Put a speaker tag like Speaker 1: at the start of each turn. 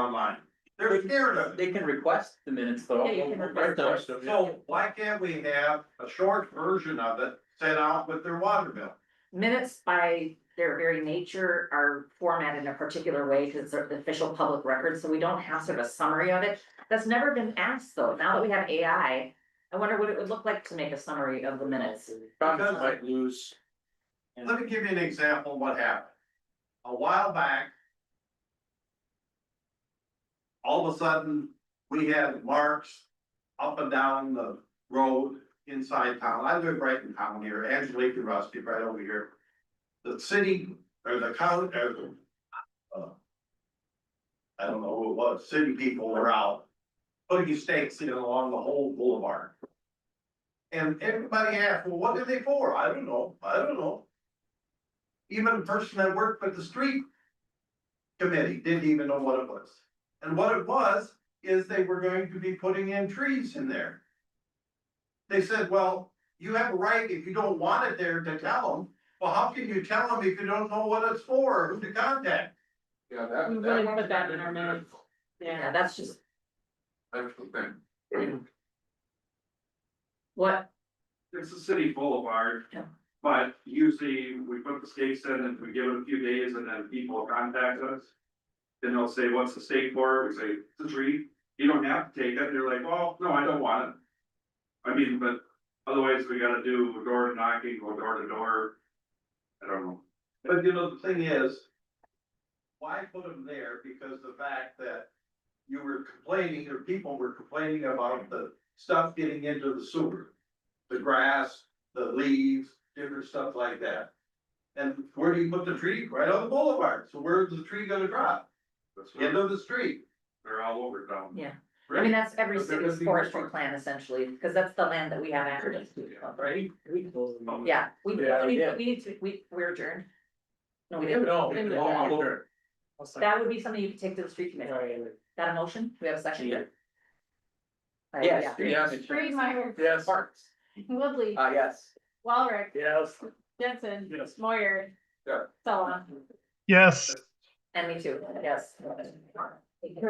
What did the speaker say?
Speaker 1: online. They're scared of it.
Speaker 2: They can request the minutes though.
Speaker 3: Yeah, you can
Speaker 2: Right,
Speaker 3: request
Speaker 2: though.
Speaker 1: So why can't we have a short version of it sent out with their water bill?
Speaker 3: Minutes by their very nature are formatted in a particular way because they're the official public record, so we don't have sort of a summary of it. That's never been asked though. Now that we have AI, I wonder what it would look like to make a summary of the minutes.
Speaker 2: Congress might lose.
Speaker 1: Let me give you an example of what happened. A while back. All of a sudden, we had marks up and down the road inside town. I live right in town here, Angelique and Rusty, right over here. The city or the county or the. uh, I don't know who it was, city people were out putting stakes in along the whole boulevard. And everybody asked, well, what are they for? I don't know, I don't know. Even the person that worked with the street committee didn't even know what it was. And what it was, is they were going to be putting in trees in there. They said, well, you have a right if you don't want it there to tell them. Well, how can you tell them if you don't know what it's for, or who to contact?
Speaker 4: Yeah, that.
Speaker 5: We wouldn't put that in our minutes.
Speaker 3: Yeah, that's just
Speaker 4: That's the thing.
Speaker 3: what,
Speaker 4: It's a city boulevard.
Speaker 3: Yeah.
Speaker 4: But usually we put the stakes in and we give it a few days and then people contact us. Then they'll say, what's the stake for? We say, it's a tree. You don't have to take it. They're like, well, no, I don't want it. I mean, but otherwise we gotta do door knocking, go door to door. I don't know.
Speaker 1: But you know, the thing is. Why put them there? Because the fact that you were complaining, or people were complaining about the stuff getting into the sewer. The grass, the leaves, different stuff like that. And where do you put the tree? Right on the boulevard. So where's the tree gonna drop?
Speaker 4: That's
Speaker 1: End
Speaker 4: why
Speaker 1: of the street.
Speaker 4: they're all over town.
Speaker 3: yeah. I mean, that's every
Speaker 4: But that
Speaker 3: city's
Speaker 4: doesn't even-
Speaker 3: forestry plan essentially, because that's the land that we have access to.
Speaker 2: Right? Oh,
Speaker 3: Yeah, we, we
Speaker 2: Yeah,
Speaker 3: need,
Speaker 2: yeah.
Speaker 3: we need to, we, we're adjourned. No, we didn't.
Speaker 2: No.
Speaker 5: Didn't
Speaker 2: no,
Speaker 3: That would be something you could take to the street committee. That a motion? Do we have a second?
Speaker 2: Yeah.
Speaker 3: Uh,
Speaker 2: Yes, yes.
Speaker 5: Freemeyer,
Speaker 2: Yes. Uh,
Speaker 3: Parks.
Speaker 5: Woodley,
Speaker 2: yes.
Speaker 5: Walrick,
Speaker 2: Yes.
Speaker 5: Jensen,
Speaker 4: Yes.
Speaker 5: Moyer.
Speaker 4: Yeah.
Speaker 3: Uh,
Speaker 5: Sullivan.
Speaker 6: Yes.
Speaker 3: And me too, yes.